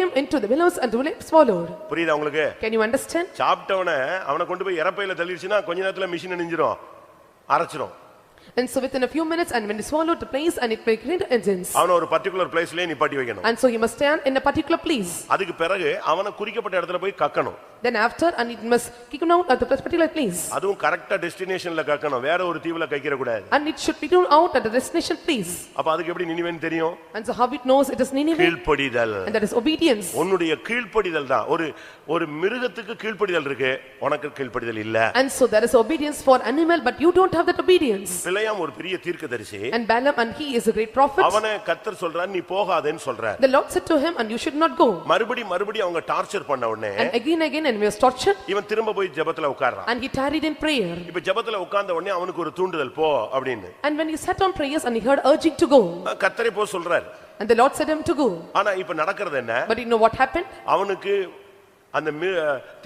him into the willows and the willows followed. புரியுதா உங்களுக்கு Can you understand? சாப்பிட்டவனை அவனை கொண்டு போய் இறப்பையில தள்ளிடுச்சுன்னா கொஞ்ச நேரத்துல மிஷின் நெஞ்சிரும் அரைச்சிரும் And so within a few minutes and when he swallowed the place and it made great engines. அவனை ஒரு பர்டிகுலர் பிளேஸ்லயே நிப்பாட்டி வைக்கணும் And so he must stand in a particular place. அதுக்கு பிறகு அவனை குறிக்கப்பட்ட இடத்துல போய் கக்கணும் Then after and it must kick him out at the particular place. அதுவும் கரெக்டா டெஸ்டினேஷன்ல கக்கணும் வேற ஒரு தீவுல கைக்கிற கூடாது And it should be thrown out at the destination place. அப்ப அதுக்கு எப்படி நினைவேன்னு தெரியும் And so how it knows it is Nineveh கீழ்ப்படிதல் and that is obedience. உன்னுடைய கீழ்ப்படிதல் தான் ஒரு ஒரு மிருகத்துக்கு கீழ்ப்படிதல் இருக்கு உனக்கு கீழ்ப்படிதல் இல்ல And so there is obedience for animal but you don't have that obedience. பிழையாம் ஒரு பெரிய தீர்க்கதரிசி And Balaam and he is a great prophet. அவனை கத்தர் சொல்றார் நீ போகாதேன்னு சொல்றார் The Lord said to him and you should not go. மறுபடி மறுபடி அவங்க டார்ச்சர் பண்ண உடனே And again again and he was tortured இவன் திரும்ப போய் ஜெபத்துல உட்கார்றான் and he tarried in prayer. இப்ப ஜெபத்துல உட்கார்ந்த உடனே அவனுக்கு ஒரு தூண்டுதல் போ அப்படின்னு And when he sat on prayers and he heard urging to go. அஹ் கத்தரை போ சொல்றாரு And the Lord said him to go. ஆனா இப்ப நடக்கிறது என்ன But you know what happened? அவனுக்கு அந்த மி-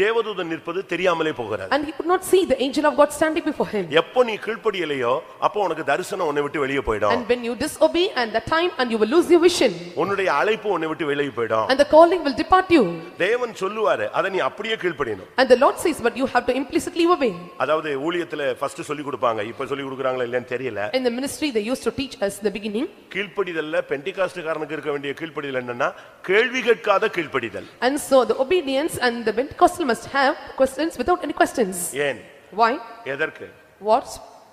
தேவதூதன் நிற்பது தெரியாமலே போகிறார் And he could not see the angel of God standing before him. எப்போ நீ கீழ்ப்படியலையோ அப்போ உனக்கு தரிசனம் உன்னை விட்டு வெளியே போயிடும் And when you disobey and the time and you will lose your vision. உன்னுடைய அழைப்பு உன்னை விட்டு வெளியே போயிடும் And the calling will depart you. தேவன் சொல்லுவாரு அதை நீ அப்படியே கீழ்ப்படியணும் And the Lord says, but you have to implicitly obey. அதாவது ஊழியத்துல ஃபர்ஸ்ட் சொல்லி கொடுப்பாங்க இப்ப சொல்லி கொடுக்குறாங்களா இல்லையான்னு தெரியல In the ministry, they used to teach us in the beginning. கீழ்ப்படிதல்ல பெண்டிகாஸ்டுக்காரனுக்கு இருக்க வேண்டிய கீழ்ப்படிதல் என்னன்னா கேள்வி கேட்காத கீழ்ப்படிதல் And so the obedience and the Pentecostal must have questions without any questions. ஏன் Why? எதற்கு What?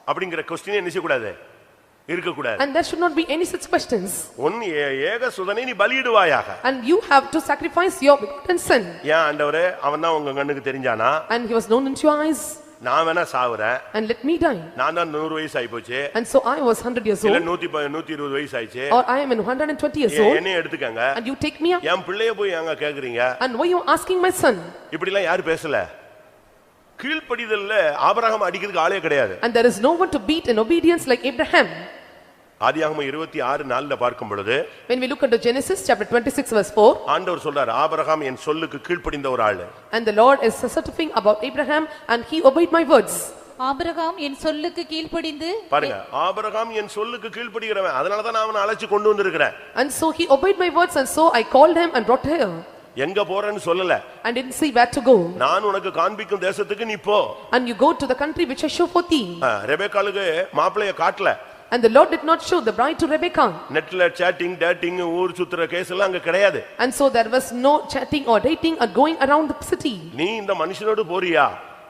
அப்படிங்கிற கொஸ்டினே என்ன செய்யக்கூடாது இருக்கக்கூடாது And there should not be any such questions. உன் ஏ- ஏக சுதனை நீ பலியிடுவாயாக And you have to sacrifice your begotten son. ஏன் ஆண்டவரே அவன் தான் உங்க கண்ணுக்கு தெரிஞ்சானா And he was known into your eyes. நான் வேணா சாவுறேன் And let me die. நான் தான் நூறு வயசு ஆயிப்போச்சு And so I was 100 years இல்ல old. நூத்தி ப- நூத்தி இருபது வயசு ஆயிடுச்சு Or I am in 120 years ஏன் old. என்னையும் எடுத்துக்கங்க And you take me up. என் பிள்ளைய போய் எங்க கேக்குறீங்க And why you asking my son? இப்படி எல்லாம் யாரு பேசல கீழ்ப்படிதல்ல ஆபரகம் அடிக்கிறதுக்கு ஆளே கிடையாது And there is no one to beat in obedience like Abraham. ஆதியாகமம் இருபத்தி ஆறு நாள்ல பார்க்கும் பொழுது When we look into Genesis chapter 26 verse 4. ஆண்டவர் சொல்றார் ஆபரகாம் என் சொல்லுக்கு கீழ்ப்படிந்த ஒரு ஆளு And the Lord is certifying about Abraham and he obeyed my words. Abraham என் சொல்லுக்கு கீழ்ப்படிந்து பாருங்க ஆபரகாம் என் சொல்லுக்கு கீழ்ப்படிகிறவன் அதனாலதான் நான் அவனை அழைச்சு கொண்டு வந்திருக்கிறேன் And so he obeyed my words and so I called him and brought here. எங்க போறேன்னு சொல்லல And didn't see where to go. நான் உனக்கு காண்பிக்கும் தேசத்துக்கு நீ போ And you go to the country which I show for thee. ஆ, ரெபெக்காளுக்கு மாப்பிளைய காட்டல And the Lord did not show the bride to Rebekah. நெட்ல சேட்டிங் டேட்டிங் ஊர் சுத்துற கேஸ் எல்லாம் அங்க கிடையாது And so there was no chatting or dating or going around the city. நீ இந்த மனுஷனோடு போறியா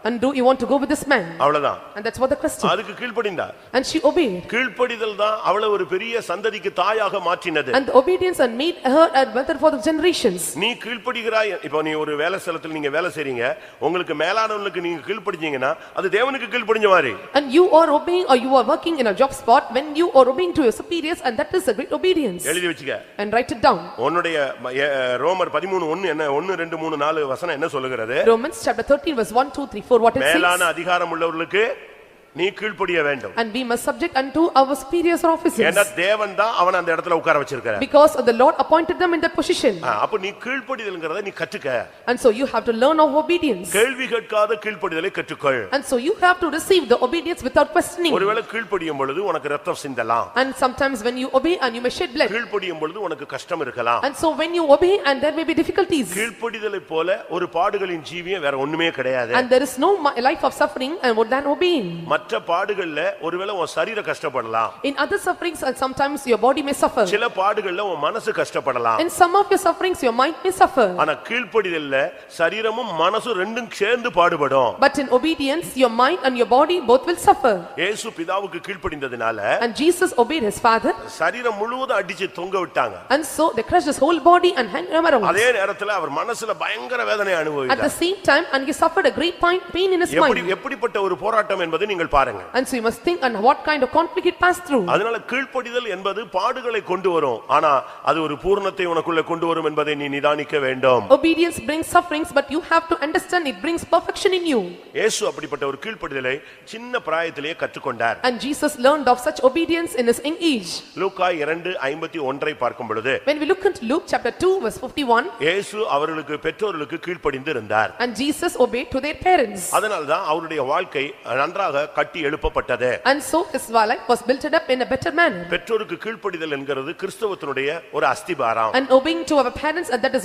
And do you want to go with this man? அவ்வளவுதான் And that's what the question. அதுக்கு கீழ்ப்படிந்தா And she obeyed. கீழ்ப்படிதல் தான் அவளை ஒரு பெரிய சந்ததிக்கு தாயாக மாற்றினது And the obedience and made her a mother for the generations. நீ கீழ்ப்படிகிறாய் இப்போ நீ ஒரு வேலை ஸ்தலத்தில் நீங்க வேலை செய்றீங்க உங்களுக்கு மேலானவங்களுக்கு நீங்க கீழ்ப்படிஞ்சீங்கன்னா அது தேவனுக்கு கீழ்ப்படிஞ்ச மாதிரி And you are obeying or you are working in a job spot when you are obeying to your superiors and that is a great obedience. எழுதி வச்சுக்க And write it down. உன்னுடைய ம- எ- ரோமர் பதிமூணு ஒன்னு என்ன ஒன்னு ரெண்டு மூணு நாலு வசனம் என்ன சொல்லுகிறது Romans chapter 13 verse 1, 2, 3, 4, what it மேலான says. அதிகாரம் உள்ளவர்களுக்கு நீ கீழ்ப்படிய வேண்டும் And we must subject unto our superiors or officers. ஏன்னா தேவன் தான் அவன் அந்த இடத்துல உட்கார வச்சிருக்கிற Because the Lord appointed them in that position. ஆ, அப்ப நீ கீழ்ப்படிதல்ங்கிறத நீ கற்றுக்க And so you have to learn of obedience. கேள்வி கேட்காத கீழ்ப்படிதலை கற்றுக்கொள் And so you have to receive the obedience without questioning. ஒருவேளை கீழ்ப்படியும் பொழுது உனக்கு ரத்தம் சிந்தலாம் And sometimes when you obey and you may shed blood. கீழ்ப்படியும் பொழுது உனக்கு கஷ்டம் இருக்கலாம் And so when you obey and there may be difficulties. கீழ்ப்படிதலை போல ஒரு பாடுகளின் ஜீவியம் வேற ஒண்ணுமே கிடையாது And there is no mi- life of suffering and more than obeying. மற்ற பாடுகள்ல ஒருவேளை உன் சரீரம் கஷ்டப்படலாம் In other sufferings and sometimes your body may suffer. சில பாடுகள்ல உன் மனசு கஷ்டப்படலாம் In some of your sufferings your mind may suffer. ஆனா கீழ்ப்படிதல்ல சரீரமும் மனசும் ரெண்டும் சேர்ந்து பாடுபடும் But in obedience your mind and your body both will suffer. இயேசு பிதாவுக்கு கீழ்ப்படிந்ததுனால And Jesus obeyed his father. சரீரம் முழுவதும் அடிச்சு தொங்க விட்டாங்க And so they crushed his whole body and hung him around. அதே நேரத்துல அவர் மனசுல பயங்கர வேதனை At the அனுபவித்தார் same time, and he suffered a great pain, pain in his எப்படி mind. எப்படிப்பட்ட ஒரு போராட்டம் என்பதை நீங்கள் பாருங்க And so you must think on what kind of conflict it passed through. அதனால கீழ்ப்படிதல் என்பது பாடுகளை கொண்டு வரும் ஆனா அது ஒரு பூரணத்தை உனக்குள்ள கொண்டு வரும் என்பதை நீ நிதானிக்க வேண்டும் Obedience brings sufferings, but you have to understand it brings perfection in you. இயேசு அப்படிப்பட்ட ஒரு கீழ்ப்படிதலை சின்ன பிராயத்திலேயே கற்றுக்கொண்டார் And Jesus learned of such obedience in his young age. லூக்கா இரண்டு ஐம்பத்தி ஒன்றை பார்க்கும் பொழுது When we look into Luke chapter 2 verse 51, இயேசு அவர்களுக்கு பெற்றோர்களுக்கு கீழ்ப்படிந்து இருந்தார் and Jesus obeyed to their parents. அதனால்தான் அவருடைய வாழ்க்கை நன்றாக கட்டி எழுப்பப்பட்டது And so his life was built up in a better manner. பெற்றோருக்கு கீழ்ப்படிதல் என்கிறது கிறிஸ்தவத்தினுடைய ஒரு அஸ்திபாரம் And obeying to our parents, and that is